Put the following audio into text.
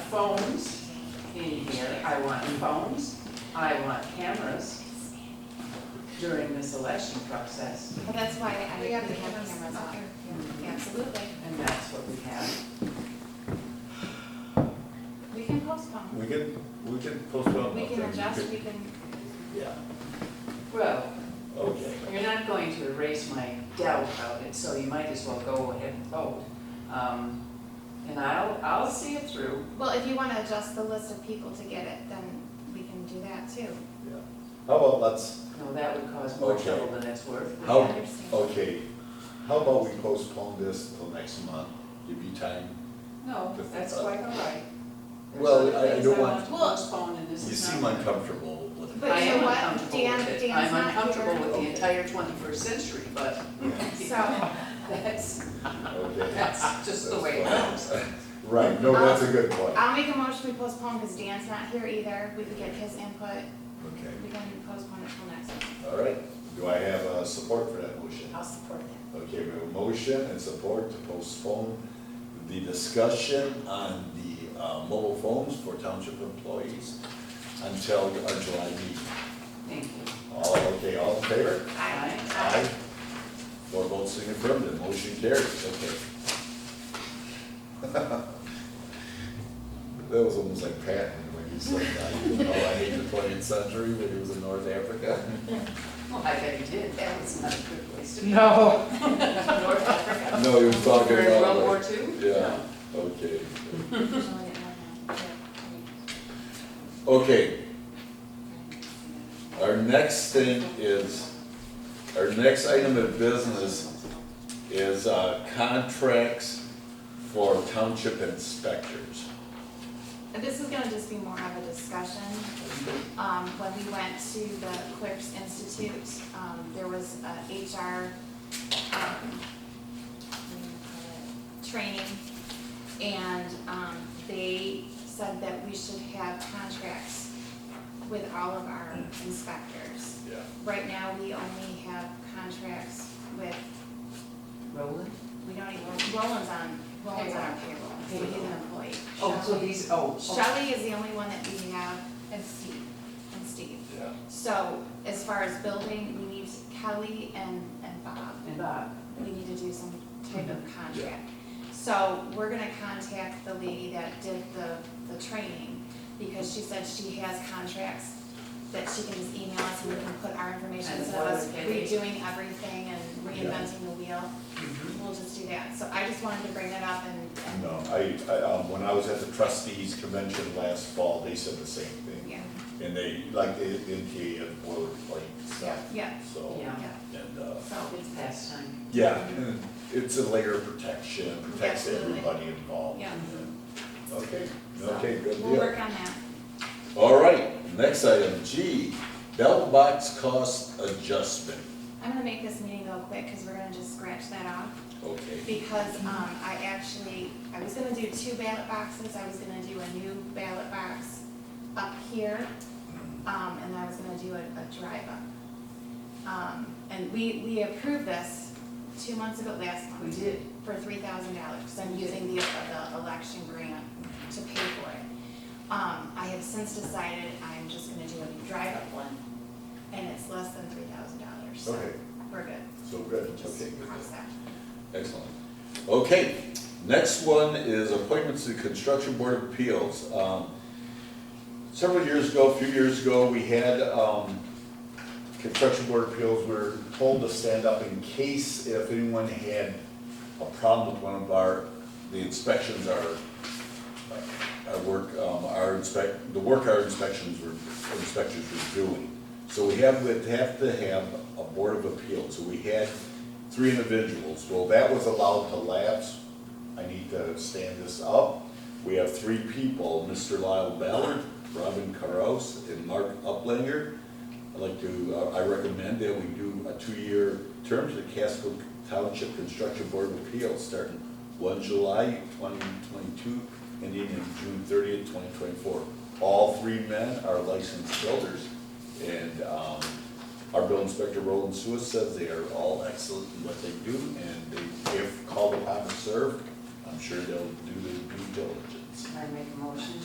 phones in here, I want phones, I want cameras during this election process, Well, that's why I, We we have have the cameras cameras up on. here. Yeah, Absolutely. and that's what we have. We can postpone. We can, we can postpone. We can okay, adjust, could- we can, Yeah, Well, okay. you're not going to erase my doubt about it, so you might as well go ahead and vote. Um, And I'll, I'll see it through. well, if you want to adjust the list of people to get it, then we can do that too. Yeah. How about let's, No, that would cause more Okay. trouble than it's worth. I How- oh. understand. okay, how about we postpone this till next month? Give you time. No, that's quite all right. There's Well, other I- I things don't want want- to postpone, and You this is not seem one. uncomfortable with it. But I you am know what? uncomfortable Dan- with it. Dan's I'm not uncomfortable here. with the Okay. entire twenty-first century, but So, that's, Okay. that's just the way it That's goes. Um, uh, Right, no, that's a good point. I'll make a motion we postpone because Dan's not here either. We could get his input. Okay, We can postpone it till next week. all right. Do I have uh, support for that motion? I'll support that. Okay, we have a motion and support to postpone the discussion on the uh, mobile phones for township employees until our July meeting. Thank you. All, okay, all in favor? Aye. Four votes in affirmative, motion carries, okay. That was almost like Patton when he said, I, oh, I hate the twentieth century when he was in North Africa. Well, I bet you did. That was not a good place to be. No. North Africa. No, he was talking During about. World War like- II? Yeah, okay. Aye. Okay, our next thing is, our next item of business is uh, contracts for township inspectors. And This is gonna just be more of a discussion. Um, when we went to the Clerks Institute, um, there was a HR, um, what do you call it? training. And, um, they said that we should have contracts with all of our inspectors. Yeah. Right now, we only have contracts with, Roland? we don't even, Roland's on, Roland's on our payroll, so he's an employee. Oh, so he's, oh, oh, Shelley is the only one that we have, And Steve. and Steve. Yeah. So as far as building, we need Kelly and, and Bob, and Bob. we need to do some type of contract. So we're gonna contact the lady that did the, the training, because she said she has contracts that she can just email us and we can put our information, And instead of us what we- redoing everything and reinventing the wheel, Mm-hmm. we'll just do that. So I just wanted to bring that up and, and, No, I, I, um, when I was at the trustees convention last fall, they said the same thing. yeah, And they, like, they, they had boilerplate stuff, yeah, so, Yeah. yeah, and, uh, so, It's past time. yeah, and it's a layer of protection, protects Absolutely. everybody involved. yeah. Okay, So okay, good We'll deal. work on that. All right, next item, G, bell box cost adjustment, I'm gonna make this meeting go quick, because we're gonna just scratch that off, okay. because, um, I actually, I was gonna do two ballot boxes, I was gonna do a new ballot box up here, Mm-hmm. um, and I was gonna do a, a drive-up. Um, and we, we approved this two months ago, last We month, did. for three thousand dollars, because I'm using the, uh, the election grant to pay for it. Um, I have since decided I'm just gonna do a drive-up one, and it's less than three thousand dollars, so Okay, we're good. so good, okay, Just good deal. cross that. Excellent. Okay, next one is appointments to the Construction Board of Appeals. Um, Several years ago, a few years ago, we had um, Construction Board of Appeals, we were told to stand up in case if anyone had a problem with one of our, the inspections are, our work, um, our inspect, the work our inspections were, inspectors were doing. So we have, we'd have to have a board of appeals, so we had three individuals, well, that was allowed to lapse. I need to stand this up, we have three people, Mr. Lyle Ballard, Robin Caros, and Mark Uplinger. I'd like to, uh, I recommend that we do a two-year term to the Casco Township Construction Board of Appeals, starting one July twenty twenty-two, ending in June thirtieth, twenty twenty-four. All three men are licensed builders, and, um, our bill inspector, Roland Suis, says they are all excellent in what they do, and they, if called upon to serve, I'm sure they'll do their due diligence. I make a motion